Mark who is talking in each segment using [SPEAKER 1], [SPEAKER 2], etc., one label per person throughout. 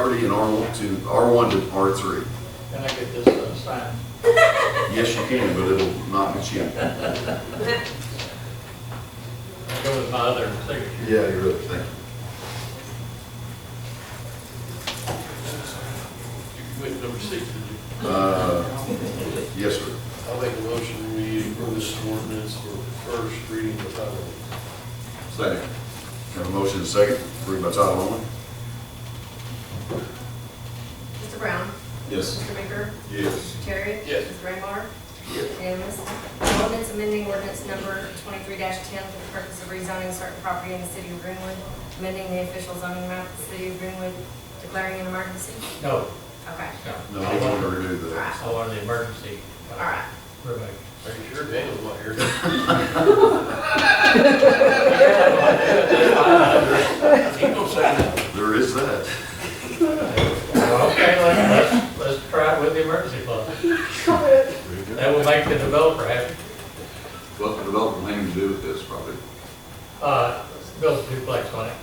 [SPEAKER 1] property in R1 to, R1 to R3.
[SPEAKER 2] Can I get this uh, signed?
[SPEAKER 1] Yes, you can, but it'll not get you.
[SPEAKER 2] I'll Go with my other signature.
[SPEAKER 1] Yeah, you're right, thank you.
[SPEAKER 2] You went number six, did you?
[SPEAKER 1] Uh, Yes, sir.
[SPEAKER 3] I'll make a motion, we approve this ordinance for first reading by title only.
[SPEAKER 1] Second. Have a motion and a second, read by title only?
[SPEAKER 4] Mr. Brown?
[SPEAKER 1] Yes.
[SPEAKER 4] Mr. Baker?
[SPEAKER 1] Yes.
[SPEAKER 4] Mr. Terry?
[SPEAKER 3] Yes.
[SPEAKER 4] Mr. Raymar?
[SPEAKER 1] Yes.
[SPEAKER 4] Unanimous. An Ordinance amending ordinance number twenty-three ten for the purpose of rezoning certain property in the city of Greenwood, amending the official zoning map of the city of Greenwood, declaring an emergency.
[SPEAKER 2] No,
[SPEAKER 4] Okay,
[SPEAKER 1] No,
[SPEAKER 2] no.
[SPEAKER 1] I want to redo that.
[SPEAKER 2] I wanted the emergency.
[SPEAKER 4] all right.
[SPEAKER 2] Perfect.
[SPEAKER 3] Are you sure Daniel's not here?
[SPEAKER 1] There is that.
[SPEAKER 2] Well, Okay, let's, let's, let's try it with the emergency clause. That will make the developer happy.
[SPEAKER 1] What the development planning to do with this probably.
[SPEAKER 2] Uh, build a duplex on it.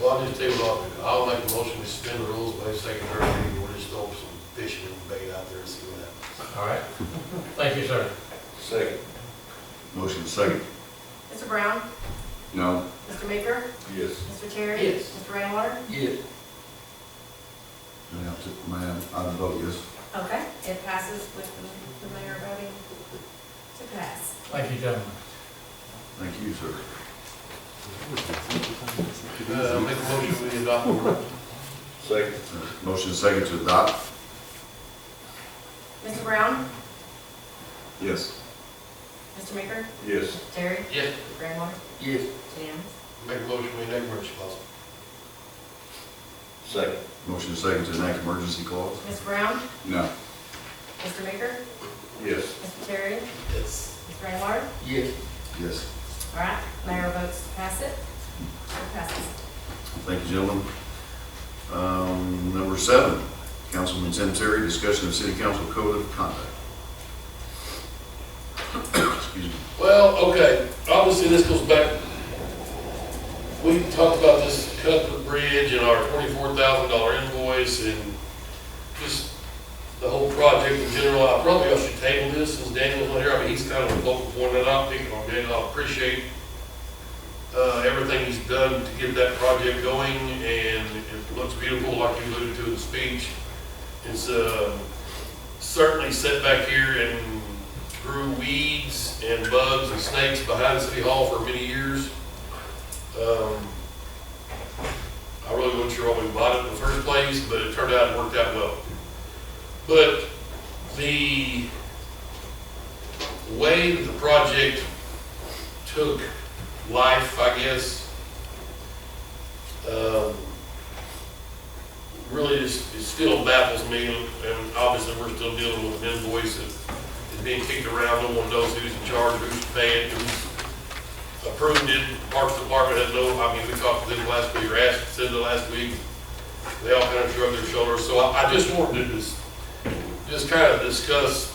[SPEAKER 3] Well, I'll just tell you what, I'll make a motion, we suspend the rules by second, third reading, we'll just throw some fishing and bait out there and see what happens.
[SPEAKER 2] All right? Thank you, sir.
[SPEAKER 3] Second.
[SPEAKER 1] Motion and second.
[SPEAKER 4] Mr. Brown?
[SPEAKER 1] No.
[SPEAKER 4] Mr. Baker?
[SPEAKER 1] Yes.
[SPEAKER 4] Mr. Terry?
[SPEAKER 2] Yes.
[SPEAKER 4] Mr. Raymar?
[SPEAKER 3] Yes.
[SPEAKER 1] And I took my, I vote yes.
[SPEAKER 4] Okay, it passes with the- the mayor voting to pass.
[SPEAKER 2] Thank you, gentlemen.
[SPEAKER 1] Thank you, sir.
[SPEAKER 3] Uh, I'll make a motion, we adopt ordinance.
[SPEAKER 1] Second. Motion and second to adopt?
[SPEAKER 4] Mr. Brown?
[SPEAKER 1] Yes.
[SPEAKER 4] Mr. Baker?
[SPEAKER 1] Yes.
[SPEAKER 4] Terry?
[SPEAKER 3] Yes.
[SPEAKER 4] Mr. Raymar?
[SPEAKER 1] Yes.
[SPEAKER 4] Unanimous.
[SPEAKER 3] Make a motion, we enact emergency clause.
[SPEAKER 1] Second. Motion and second to enact emergency clause?
[SPEAKER 4] Mr. Brown?
[SPEAKER 1] No.
[SPEAKER 4] Mr. Baker?
[SPEAKER 1] Yes.
[SPEAKER 4] Mr. Terry?
[SPEAKER 3] Yes.
[SPEAKER 4] Mr. Raymar?
[SPEAKER 3] Yes.
[SPEAKER 1] Yes.
[SPEAKER 4] All right, mayor votes to pass it. It passes.
[SPEAKER 1] Thank you, gentlemen. Um, Number seven, Councilman Tim Terry, discussion of city council code of conduct. Excuse me.
[SPEAKER 3] Well, okay, obviously this goes back, we talked about this Cuthbert Bridge and our twenty-four thousand dollar invoice and just the whole project in general. I probably I should table this since Daniel's not here. I mean, he's kind of a vocal point that I'm picking on Daniel. I appreciate uh, everything he's done to get that project going and it looks beautiful like you alluded to in the speech. It's, uh, certainly set back here and grew weeds and bugs and snakes behind City Hall for many years. Um, I really wasn't sure why we bought it in the first place, but it turned out it worked out well. But the way that the project took life, I guess, um, really just, it still baffles me, and obviously, we're still dealing with an invoice that is being kicked around, no one knows who's in charge, who's paying, who's approved it, Parks Department has no, I mean, we talked to them last week, or asked, said the last week, they all kind of shrugged their shoulders, so I, I just wanted to just, just kind of discuss,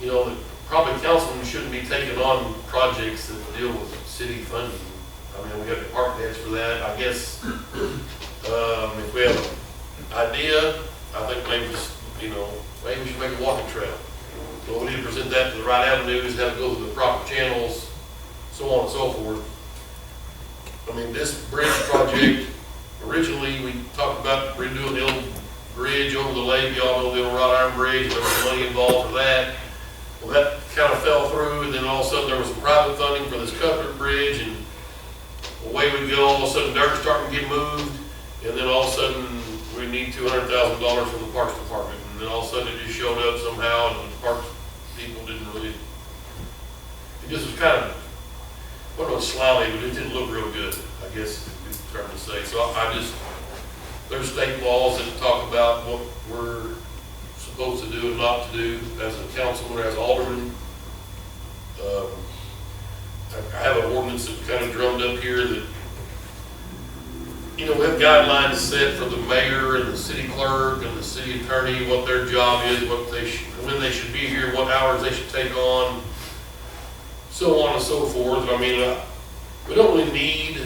[SPEAKER 3] you know, that probably councilmen shouldn't be taking on projects that deal with city funding. I mean, we have department heads for that, I guess, um, if we have an idea, I think maybe just, you know, maybe we should make a walking trail. But we need to present that to the right avenues, have it go through the proper channels, so on and so forth. I mean, this bridge project, originally, we talked about redoing the old bridge over the lake, y'all know the old wrought iron bridge, there was money involved for that. Well, that kind of fell through, and then all of a sudden, there was some private funding for this Cuthbert Bridge, and away we go, all of a sudden dirt's starting to get moved, and then all of a sudden, we need two hundred thousand dollars from the Parks Department, and then all of a sudden it just showed up somehow, and the Parks people didn't really, it just was kind of, what was slimy, but it didn't look real good, I guess, is the term to say, so I I just, there's state laws that talk about what we're supposed to do and not to do as a councilman, as alderman. Um, I I have an ordinance that kind of drummed up here that, you know, we have guidelines set for the mayor and the city clerk and the city attorney, what their job is, what they should, when they should be here, what hours they should take on, so on and so forth. I mean, uh, we don't really need